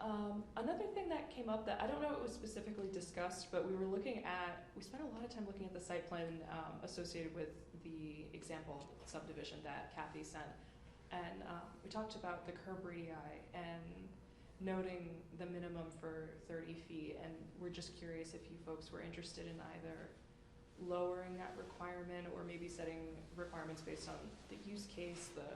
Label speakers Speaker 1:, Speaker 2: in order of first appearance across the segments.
Speaker 1: Um, another thing that came up that I don't know if it was specifically discussed, but we were looking at, we spent a lot of time looking at the site plan um, associated with the example subdivision that Kathy sent. And um, we talked about the curb radii and noting the minimum for 30 feet. And we're just curious if you folks were interested in either lowering that requirement or maybe setting requirements based on the use case, the,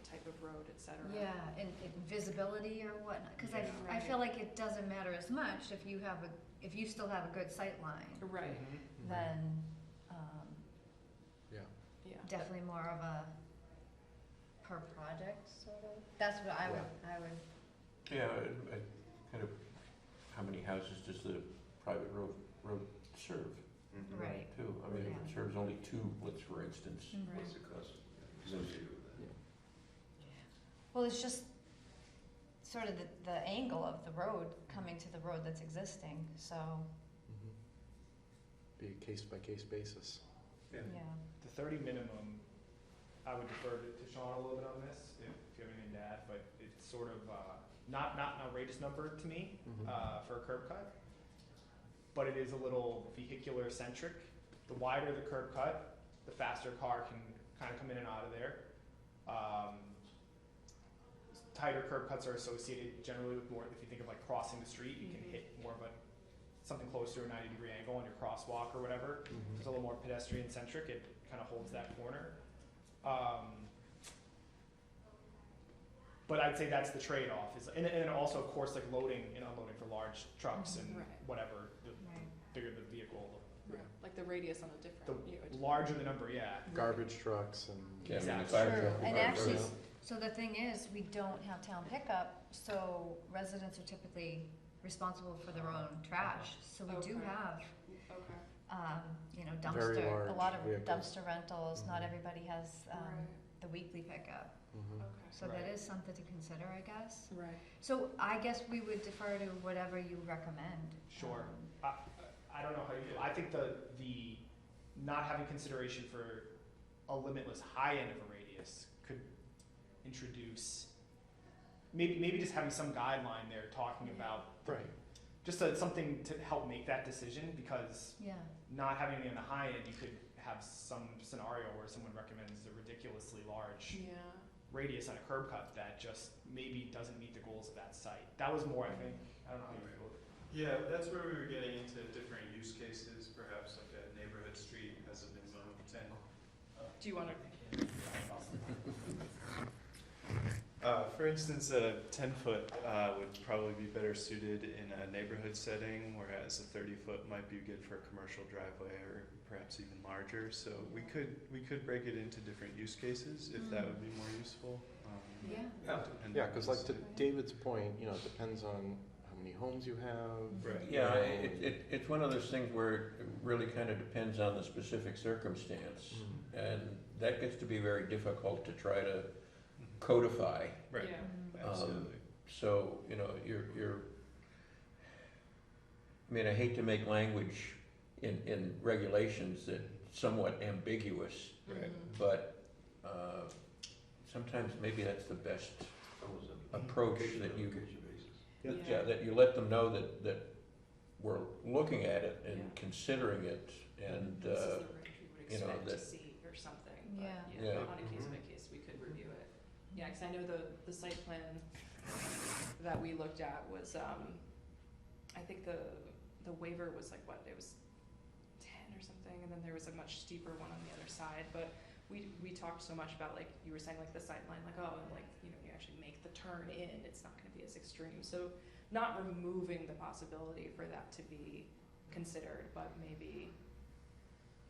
Speaker 1: the type of road, et cetera.
Speaker 2: Yeah, and, and visibility or whatnot, cause I,
Speaker 1: Yeah.
Speaker 2: I feel like it doesn't matter as much if you have a, if you still have a good sight line,
Speaker 1: Right,
Speaker 2: Mm-hmm.
Speaker 3: Mm-hmm.
Speaker 2: then, um,
Speaker 3: Yeah,
Speaker 1: yeah.
Speaker 2: definitely more of a per project sort of, that's what I would, I would,
Speaker 4: Yeah, I- I kind of, how many houses does the private road, road serve
Speaker 3: Mhm.
Speaker 2: right,
Speaker 4: too? I mean, if
Speaker 2: Yeah. Mm-hmm.
Speaker 4: it serves only two, let's, for instance.
Speaker 2: right.
Speaker 3: What's the cost associated with that?
Speaker 2: Well, it's just sort of the, the angle of the road coming to the road that's existing, so,
Speaker 3: Mm-hmm. Be a case by case basis. Yeah.
Speaker 2: yeah.
Speaker 5: The thirty minimum, I would defer to to Sean a little bit on this, if if you have anything to add, but it's sort of, uh, not, not an outrageous number to me,
Speaker 4: Mm-hmm.
Speaker 5: uh, for a curb cut. But it is a little vehicular centric. The wider the curb cut, the faster a car can kind of come in and out of there. Um, tighter curb cuts are associated generally with more, if you think of like crossing the street, you
Speaker 1: Mhm.
Speaker 5: can hit more of a, something closer to a ninety degree angle on your crosswalk or whatever it's a little more pedestrian centric. It kind of holds that corner. Um, but I'd say that's the trade off. Is and, and also of course like loading and unloading for large trucks and
Speaker 1: Right.
Speaker 5: whatever. The
Speaker 2: Right.
Speaker 5: bigger the vehicle,
Speaker 1: Right. Like the radius on a different. you know,
Speaker 5: the larger the number. Yeah.
Speaker 3: Garbage trucks and.
Speaker 4: Yeah, I mean, the
Speaker 5: Exactly.
Speaker 4: fire
Speaker 2: True.
Speaker 4: truck will
Speaker 2: And
Speaker 4: drive
Speaker 2: actually-
Speaker 4: around.
Speaker 2: So the thing is, we don't have town pickup, so residents are typically responsible for their own trash. So we do
Speaker 1: Okay.
Speaker 2: have,
Speaker 1: Okay.
Speaker 2: um, you know,
Speaker 3: Very
Speaker 2: dumpster, a
Speaker 3: large
Speaker 2: lot of
Speaker 3: vehicles.
Speaker 2: dumpster rentals, not
Speaker 3: Mhm.
Speaker 2: everybody has, um,
Speaker 1: Right.
Speaker 2: the weekly pickup.
Speaker 3: Mhm.
Speaker 1: Okay.
Speaker 2: So that
Speaker 5: Right.
Speaker 2: is something to consider, I guess.
Speaker 1: Right.
Speaker 2: So I guess we would defer to whatever you recommend.
Speaker 5: Sure.
Speaker 2: um,
Speaker 5: I, I don't know how you. I think the the not having consideration for a limitless high end of a radius could introduce maybe maybe just having some guideline there talking about
Speaker 3: Right,
Speaker 5: just a, something to help make that decision because
Speaker 2: Yeah,
Speaker 5: not having it on the high end, you could have some scenario where someone recommends a ridiculously large
Speaker 1: Yeah.
Speaker 5: radius on a curb cut that just maybe doesn't meet the goals of that site. That was more, I think. I don't know how you feel.
Speaker 6: Yeah, that's where we were getting into different use cases, perhaps like a neighborhood street has a minimum of ten.
Speaker 1: Do you want to?
Speaker 6: Uh, for instance, a ten foot, uh, would probably be better suited in a neighborhood setting, whereas a thirty foot might be good for a commercial driveway or perhaps even larger, so we could, we could break it into different use cases if that
Speaker 2: Mm.
Speaker 6: would be more useful, um.
Speaker 2: yeah,
Speaker 4: Yeah.
Speaker 6: depending
Speaker 3: yeah,
Speaker 6: on
Speaker 3: cause
Speaker 6: the
Speaker 3: like to
Speaker 6: site.
Speaker 3: David's point, you know, it depends on how many homes you have.
Speaker 6: Right.
Speaker 4: Yeah, i- it, it, it's one of those things where it really kind of depends on the specific circumstance. And that gets to be very difficult to try to codify.
Speaker 6: Right,
Speaker 1: Yeah.
Speaker 2: mm,
Speaker 6: absolutely.
Speaker 4: So, you know, you're, you're, I mean, I hate to make language in, in regulations that somewhat ambiguous,
Speaker 6: Right.
Speaker 1: Mhm.
Speaker 4: but, uh, sometimes maybe that's the best approach that you,
Speaker 1: Yeah.
Speaker 4: yeah, that you let them know that, that we're looking at it and
Speaker 1: Yeah.
Speaker 4: considering it and,
Speaker 1: This is
Speaker 4: uh,
Speaker 1: the range we would
Speaker 4: you know,
Speaker 1: expect to
Speaker 4: that-
Speaker 1: see or something,
Speaker 2: Yeah.
Speaker 1: but yeah,
Speaker 4: Yeah.
Speaker 1: on a case by case, we could review it. Yeah, because I know the, the site plan that we looked at was, um, I think the, the waiver was like, what, it was ten or something, and then there was a much steeper one on the other side, but we, we talked so much about like, you were saying like the sight line, like, oh, and like, you know, you actually make the turn in, it's not gonna be as extreme, so not removing the possibility for that to be considered, but maybe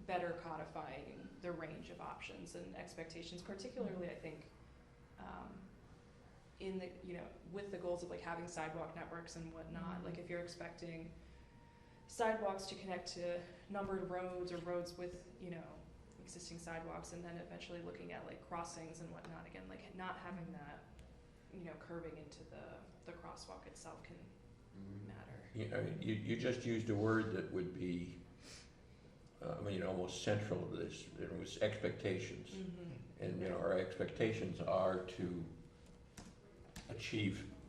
Speaker 1: better codifying the range of options and expectations, particularly, I think, um, in the, you know, with the goals of like having sidewalk networks and whatnot, like if you're expecting sidewalks to connect to numbered roads or roads with, you know, existing sidewalks, and then eventually looking at like crossings and whatnot, again, like not having that, you know, curving into the, the crosswalk itself can matter.
Speaker 4: you know, you, you just used a word that would be, uh, I mean, almost central to this, it was expectations.
Speaker 1: Mm-hmm.
Speaker 4: And, you know, our expectations are to achieve